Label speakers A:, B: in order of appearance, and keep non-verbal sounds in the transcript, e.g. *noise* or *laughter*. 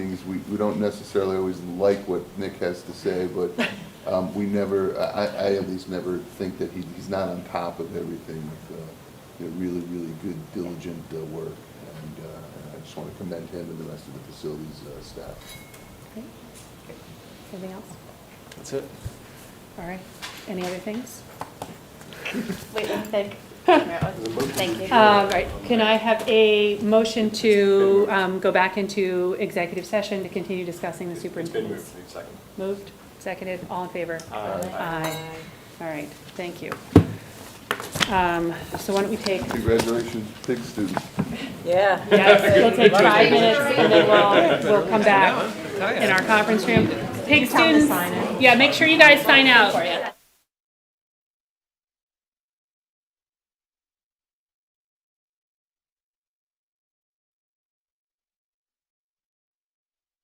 A: is we, we don't necessarily always like what Nick has to say, but um, we never, I, I- I at least never think that he, he's not on top of everything with uh, you know, really, really good diligent uh, work. And uh, I just want to commend him and the rest of the facilities uh, staff.
B: Great. Anything else?
C: That's it.
B: All right, any other things?
D: Wait, let me think. Thank you.
B: Uh, All right, can I have a motion to um, go back into executive session to continue discussing the
C: It's been moved
B: superintendent's?
C: to second.
B: Moved, seconded, all in favor? Aye. All right, thank you. Um, So why don't we
C: *laughs*
B: take,
A: Congratulations, big students.
E: Yeah.
B: yeah, we'll take five minutes and then
C: *laughs*
B: we'll, we'll come back in our conference room. Pig students, yeah, make sure you guys sign out.